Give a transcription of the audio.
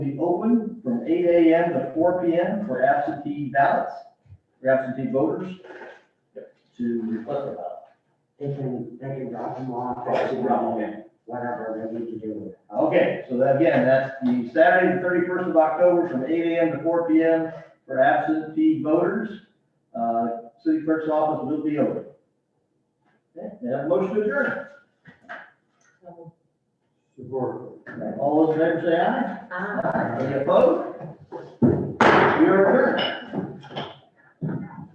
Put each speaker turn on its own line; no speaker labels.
be open from eight AM to four PM for absentee ballots, for absentee voters to reflect the ballot.
They can, they can drop them off,
Right, so we're all in.
whatever they need to do with it.
Okay, so that, again, that's the Saturday, the thirty-first of October, from eight AM to four PM for absentee voters. Uh, city clerk's office will be open. Okay, may I have a motion to adjourn.
Support.
All those in favor say aye.
Ah.
Any opposed?